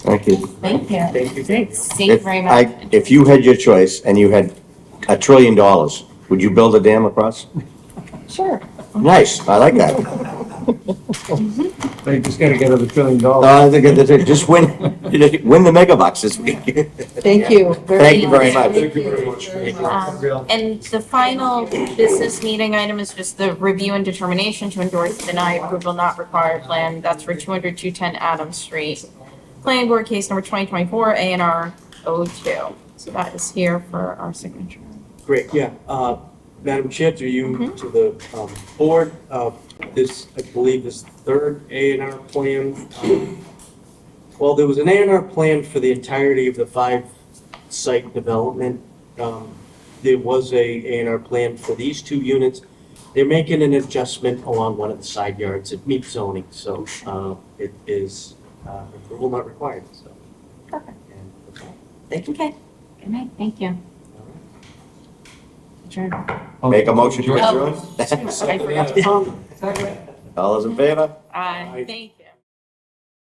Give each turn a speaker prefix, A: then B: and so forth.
A: Thank you.
B: Thank you.
C: Thank you, thanks.
B: Thank you
A: If
B: very
A: I-
B: much.
A: If you had your choice and you had a trillion dollars, would you build a dam across?
B: Sure.
A: Nice, I like that.
D: They just gotta get another trillion
A: No,
D: dollars.
A: I think it- it- Just win, win the mega bucks this week.
E: Thank you.
A: Thank you very much.
D: Thank you very much.
B: Um, And the final business meeting item is just the review and determination to endorse, deny, approval not required plan. That's for 200, 210 Adams Street. Planning Board Case Number 2024, A and R 02. So that is here for our signature.
C: Great, yeah. Uh, Madam Chair, to
B: Mm-hmm.
C: you, to the um, board, uh, this, I believe, is third A and R plan. Um, Well, there was an A and R plan for the entirety of the five site development. Um, There was a A and R plan for these two units. They're making an adjustment along one of the side yards. It meets zoning, so uh, it is uh, approval not required, so.
B: Perfect.
C: And that's all.
B: Okay. Good night. Thank you. Adjourned.
A: Make a motion to
B: Oh.
A: adjourn?
B: I forgot.
C: Um,
A: All those in favor?
B: Aye. Thank you.